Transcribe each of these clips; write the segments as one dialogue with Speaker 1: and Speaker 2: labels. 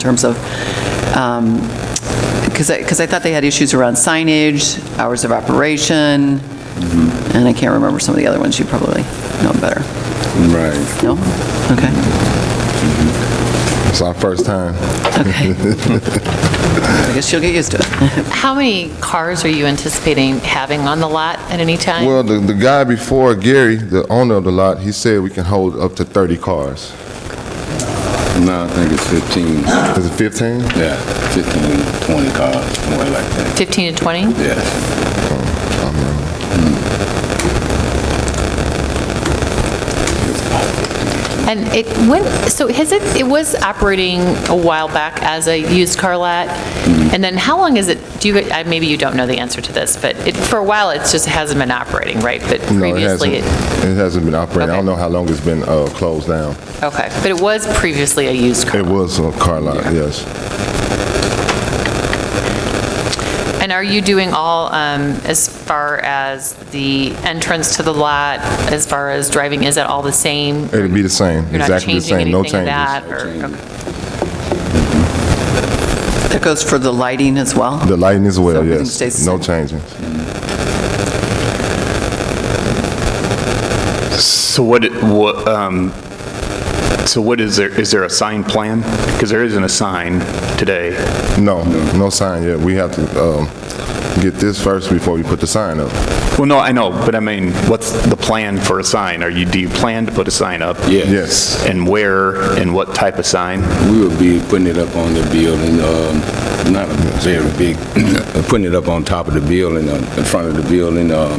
Speaker 1: terms of, because I, because I thought they had issues around signage, hours of operation,
Speaker 2: Mm-hmm.
Speaker 1: and I can't remember some of the other ones, you probably know better.
Speaker 2: Right.
Speaker 1: No? Okay,
Speaker 2: It's our first time.
Speaker 1: okay. I guess you'll get used to it.
Speaker 3: How many cars are you anticipating having on the lot at any time?
Speaker 2: Well, the, the guy before, Gary, the owner of the lot, he said we can hold up to 30 cars.
Speaker 4: No, I think it's 15,
Speaker 2: Is it 15?
Speaker 4: yeah, 15, 20 cars, somewhere like that,
Speaker 3: 15 to 20?
Speaker 4: yes.
Speaker 3: And it went, so has it, it was operating a while back as a used car lot?
Speaker 2: Mm-hmm.
Speaker 3: And then how long is it, do you, I- maybe you don't know the answer to this, but it, for a while, it's just hasn't been operating, right? But
Speaker 2: No, it
Speaker 3: previously,
Speaker 2: hasn't.
Speaker 3: it-
Speaker 2: It hasn't been operating. I don't
Speaker 3: Okay.
Speaker 2: know how long it's been uh, closed down.
Speaker 3: okay, but it was previously a used car.
Speaker 2: It was a car lot, yes.
Speaker 3: And are you doing all, um, as far as the entrance to the lot, as far as driving, is it all the same?
Speaker 2: It'd be the same,
Speaker 3: You're not
Speaker 2: exactly the
Speaker 3: changing
Speaker 2: same, no
Speaker 3: anything of
Speaker 2: changes.
Speaker 3: that? or- okay.
Speaker 1: That goes for the lighting as well?
Speaker 2: The lighting as
Speaker 1: So
Speaker 2: well,
Speaker 1: everything stays
Speaker 2: yes.
Speaker 1: the
Speaker 2: No changes.
Speaker 5: So what, it- what, um, so what is there, is there a signed plan? Because there isn't a sign today.
Speaker 2: No, no sign yet. We have to um, get this first before we put the sign up.
Speaker 5: Well, no, I know, but I mean, what's the plan for a sign? Are you, do you plan to put a sign up?
Speaker 2: Yes.
Speaker 5: And where, and what type of sign?
Speaker 4: We will be putting it up on the building, um, not a very big, putting it up on top of the building, uh, in front of the building, um,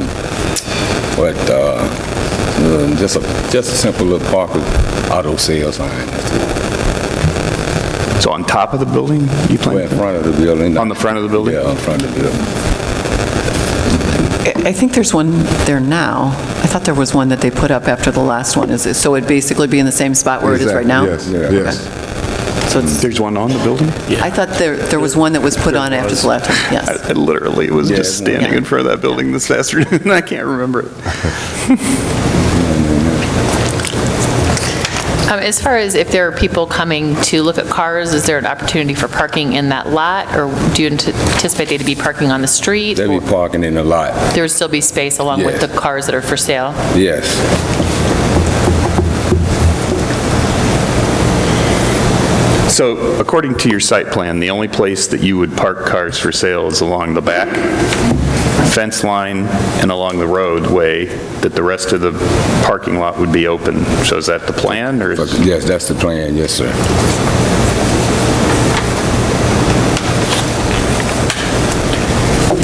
Speaker 4: but, uh, um, just a, just a simple little park with auto sales sign.
Speaker 5: So on top of the building you
Speaker 4: Well, in
Speaker 5: plan?
Speaker 4: front of the building.
Speaker 5: On the front of the building?
Speaker 4: Yeah, in front of the building.
Speaker 1: I I think there's one there now. I thought there was one that they put up after the last one. Is it, so it'd basically be in the same spot where it is right
Speaker 2: Exactly,
Speaker 1: now?
Speaker 2: Yes,
Speaker 4: Yeah.
Speaker 2: yes. Mm-hmm.
Speaker 1: So it's,
Speaker 5: There's one on the building?
Speaker 1: I thought there, there was one that was put on after the last, one. yes.
Speaker 5: I literally was just
Speaker 4: it's-
Speaker 5: standing in front of that building this afternoon, and I can't remember it.
Speaker 3: Um, As far as if there are people coming to look at cars, is there an opportunity for parking in that lot? Or do you ant- anticipate they to be parking on the street?
Speaker 4: They'll be parking in the lot,
Speaker 3: There would still be space along with
Speaker 4: Yeah.
Speaker 3: the cars that are for sale?
Speaker 4: yes.
Speaker 5: So according to your site plan, the only place that you would park cars for sale is along the back fence line and along the roadway, that the rest of the parking lot would be open. So is that the plan, or? is-
Speaker 4: Yes, that's the plan, yes, sir.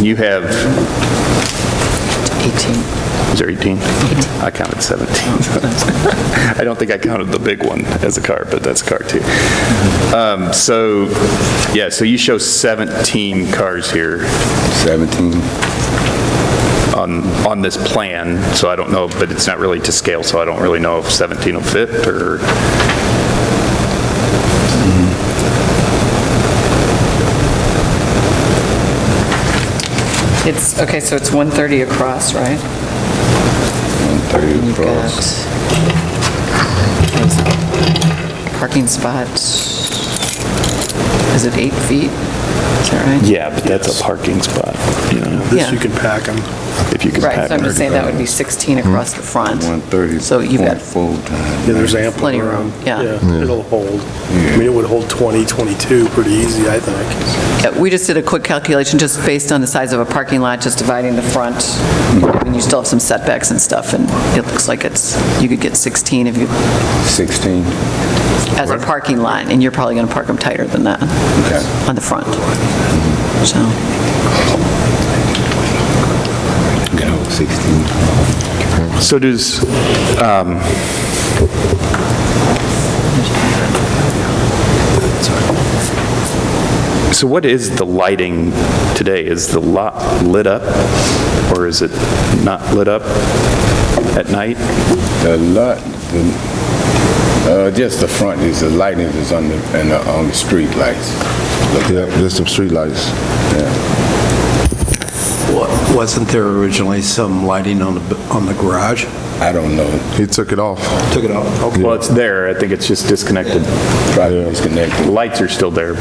Speaker 5: You have? 18. Is there 18? 18. I counted 17. I don't think I counted the big one as a car, but that's a car too. Um, So, yeah, so you show 17 cars here.
Speaker 4: 17,
Speaker 5: on this plan, so I don't know, but it's not really to scale, so I don't really know if 17 will fit, or,
Speaker 1: It's, okay, so it's 130 across, right?
Speaker 4: 130
Speaker 1: You've got
Speaker 4: across.
Speaker 1: parking spot, is it eight feet? Is that right?
Speaker 5: yeah, but that's a parking spot, you know,
Speaker 1: Yeah.
Speaker 6: This you can pack them.
Speaker 5: if you can
Speaker 1: Right,
Speaker 5: pack
Speaker 1: so I'm just saying that would be 16 across the front.
Speaker 4: 130.
Speaker 1: So you've got,
Speaker 4: Full time.
Speaker 6: Yeah, there's ample.
Speaker 1: Plenty of room, yeah.
Speaker 6: It'll hold. I mean, it would hold 20, 22 pretty easy, I think.
Speaker 1: yeah, we just did a quick calculation, just based on the size of a parking lot, just dividing the front, I mean, you still have some setbacks and stuff, and it looks like it's, you could get 16 if you,
Speaker 4: 16,
Speaker 1: as a parking lot, and you're probably going to park them tighter than that
Speaker 4: okay.
Speaker 1: on the front. So,
Speaker 4: You can hold 16.
Speaker 5: So does, um, so what is the lighting today? Is the lot lit up, or is it not lit up at night?
Speaker 4: The lot, the- uh, just the front is, the lighting is on the, and uh, on the street lights.
Speaker 2: Yep, there's some streetlights.
Speaker 6: What
Speaker 7: Wasn't there originally some lighting on the, on the garage?
Speaker 4: I don't know.
Speaker 2: He took it off.
Speaker 7: Took it off? Okay.
Speaker 5: Well, it's there, I think it's just disconnected.
Speaker 4: Probably disconnected.
Speaker 5: Lights are still there,